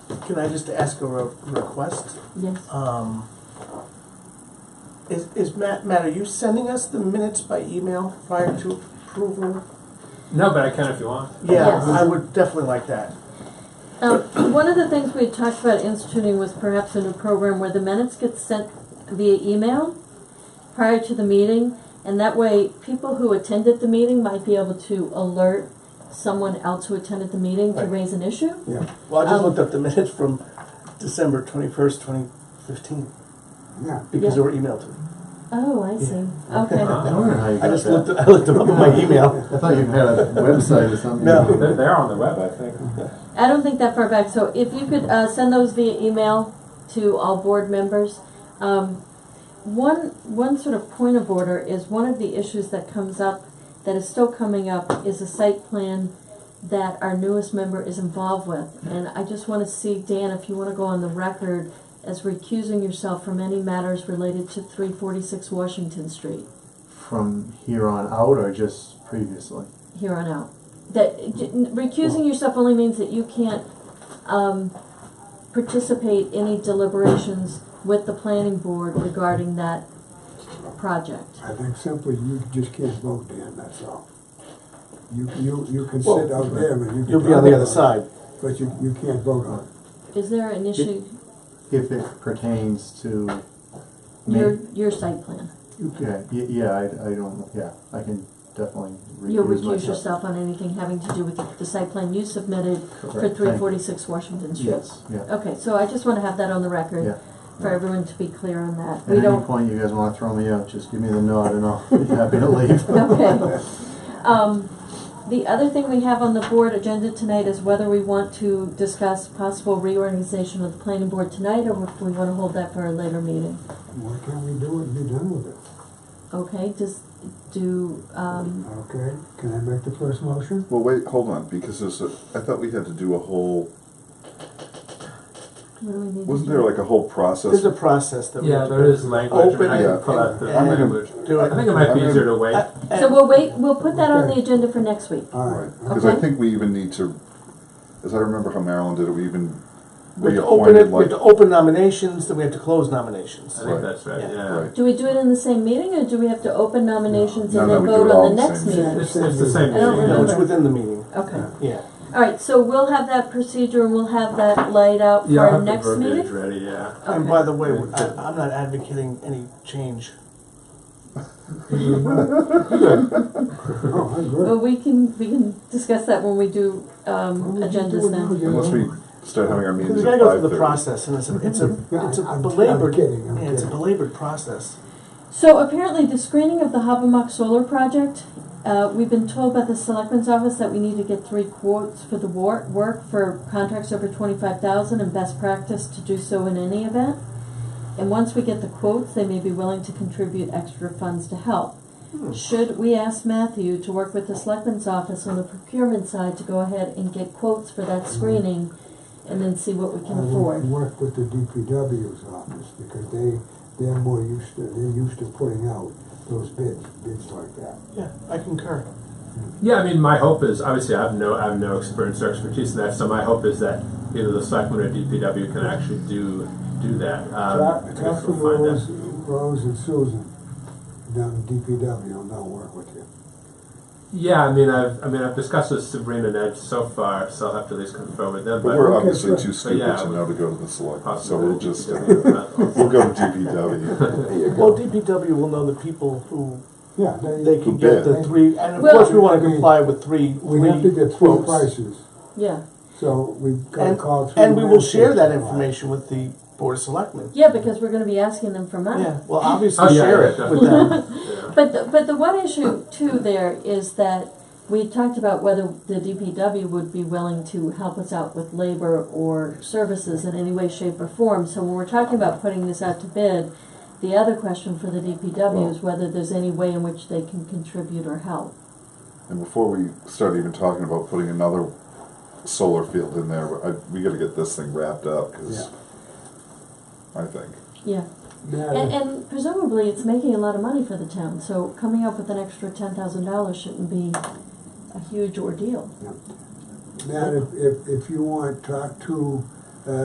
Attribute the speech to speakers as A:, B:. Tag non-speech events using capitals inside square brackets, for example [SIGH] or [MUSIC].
A: Can I just ask a re- request?
B: Yes,
A: Um, is, is Matt, Matt, are you sending us the minutes by email prior to approval?
C: No, but I can if you want.
A: Yeah,
B: Yes.
A: I would definitely like that.
B: um, [CLEARS THROAT] one of the things we had talked about instituting was perhaps a new program where the minutes get sent via email prior to the meeting, and that way, people who attended the meeting might be able to alert someone else who attended the meeting to
A: Right.
B: raise an issue.
A: Yeah. Well, I just
B: Um,
A: looked up the minutes from December twenty-first, twenty fifteen,
D: Yeah.
A: because they
B: Yeah.
A: were emailed to me.
B: Oh, I see, [LAUGHS] okay.
C: Uh,
E: I wonder how you
A: I
E: got
A: just
E: that.
A: looked, I looked them up on my email.
E: I thought you had a website or something.
A: No.
C: They're, they're on the web, I think.
B: I don't think that far back, so if you could, uh, send those via email to all board members. Um, one, one sort of point of order is one of the issues that comes up, that is still coming up, is a site plan that our newest member is involved with. And I just wanna see, Dan, if you wanna go on the record as recusing yourself from any matters related to three forty-six Washington Street
E: From here on out or just previously?
B: here on out. That j- recusing yourself only means that you can't um, participate any deliberations with the planning board regarding that project.
D: I think simply you just can't vote, Dan, that's all. You, you, you can sit out there, but you can.
A: You'll be
D: talk
A: on the
D: about
A: other
D: it,
A: side.
D: But you, you can't vote on it.
B: Is there an issue
E: If it pertains to me?
B: your your site plan?
D: You can,
E: Yeah, y- yeah, I, I don't, yeah, I can definitely recuse
B: You'll recuse
E: myself.
B: yourself on anything having to do with the, the site plan you submitted for
E: Correct,
B: three
E: thank you.
B: forty-six Washington Street.
E: Yes, yeah,
B: Okay, so I just want to have that on the record
E: yeah.
B: for everyone to be clear on that.
E: At
B: we
E: any
B: don't
E: point you guys wanna throw me out, just give me the nod and I'll be happy
B: [LAUGHS]
E: to leave.
B: Okay. Um, the other thing we have on the board agenda tonight is whether we want to discuss possible reorganization of the planning board tonight or if we wanna hold that for a later meeting.
D: why can't we do it and be done with it?
B: Okay, just do, um,
D: Okay, can I make the first motion?
F: Well, wait, hold on, because there's a, I thought we had to do a whole,
B: what do we need to do?
F: wasn't there like a whole process?
A: There's a process that we
C: Yeah,
A: have to
C: there is language. I mean,
A: Open
C: I
F: Yeah.
C: can pull out the
A: and-
C: language.
A: do
C: I
A: it.
C: think it might be easier to wait.
A: I-
B: So
A: and-
B: we'll wait, we'll put that on the agenda for next week.
D: All
F: Right,
D: right.
F: because I
B: Okay.
F: think we even need to, as I remember how Maryland did it, we even
A: We have to open it,
F: reappointed
A: we
F: like,
A: have to open nominations, then we have to close
C: I
A: nominations.
C: think
F: Right.
C: that's right,
A: Yeah.
C: yeah.
F: right,
B: Do we do it in the same meeting or do we have to open nominations
F: No,
B: and
F: no,
B: then
F: we do
B: vote
F: it all
B: on
F: in
B: the
F: the
B: next
F: same
B: meeting?
F: meeting.
C: It's, it's the same
B: I don't
C: meeting.
A: No, it's
B: remember.
A: within the meeting,
B: Okay,
A: yeah.
B: alright, so we'll have that procedure and we'll have that laid out for
C: Yeah, I'll
B: our
C: have the
B: next
C: verbiage
B: meeting?
C: ready, yeah.
A: And
B: Okay.
A: by the way, I, I'm not advocating any change.
D: Oh, I agree.
B: Well, we can, we can discuss that when we do, um,
D: Why would you do
B: agendas
D: it now,
B: then.
D: you
F: unless we
D: know?
F: start having our
A: Because we
F: meetings
A: gotta
F: at
A: go
F: five
A: through the
F: thirty.
A: process, and it's a, it's a,
D: [LAUGHS] Yeah,
A: it's a
D: I'm- I'm
A: belabored,
D: kidding, I'm
A: yeah, it's a
D: kidding.
A: belabored process.
B: So apparently, the screening of the Habermock Solar Project, uh, we've been told by the Selectmen's Office that we need to get three quotes for the war, work for contracts over twenty-five thousand and best practice to do so in any event. And once we get the quotes, they may be willing to contribute extra funds to help.
D: Hmm.
B: Should we ask Matthew to work with the Selectmen's Office on the procurement side to go ahead and get quotes for that screening and then see what we can
D: Hmm. I would
B: afford?
D: Work with the DPW's office, because they, they're more used to, they're used to putting out those bids, bids like that.
A: Yeah, I concur.
C: Yeah, I mean, my hope is, obviously, I have no, I have no experience or expertise in that, so my hope is that either the selectmen or DPW can actually do, do that. Um,
D: Talk
C: if
D: talk to
C: we find that-
D: Rose, Rose and Susan down in DPW, and they'll work with you.
C: Yeah, I mean, I've, I mean, I've discussed with Sabrina and Ed so far, so I'll have to at least confirm with them,
F: But we're
C: but
D: Okay,
F: obviously
D: sure.
F: too
C: yeah,
F: stupid to
C: we-
F: know to go to the select, so
C: possibly.
F: we'll just, uh, [LAUGHS] we'll
C: We'll
F: go to DPW.
D: There you
A: Well, DPW will know the people who,
D: Yeah,
A: they
D: they,
A: can get the
D: bid.
A: three, and of
B: Well-
A: course, we wanna comply with three,
D: we have to
A: three
D: get three
A: quotes.
D: prices,
B: Yeah,
D: so we've gotta
A: And,
D: call three.
A: and we will share that
D: landscapers.
A: information with the Board of Selectmen.
B: yeah, because we're gonna be asking them for money.
A: Yeah, well, obviously
C: Oh, yeah,
A: share
C: yeah,
A: it with them.
C: Yeah.
B: But the, but the one issue too there is that we talked about whether the DPW would be willing to help us out with labor or services in any way, shape, or form. So when we're talking about putting this out to bid, the other question for the DPW is whether there's any way in which they can contribute or help.
F: And before we start even talking about putting another solar field in there, I, we gotta get this thing wrapped up, cause I think.
B: Yeah, and,
D: Matt,
B: and presumably it's making a lot of money for the town, so coming up with an extra ten thousand dollars shouldn't be a huge ordeal.
D: Matt, if, if, if you want, talk to uh,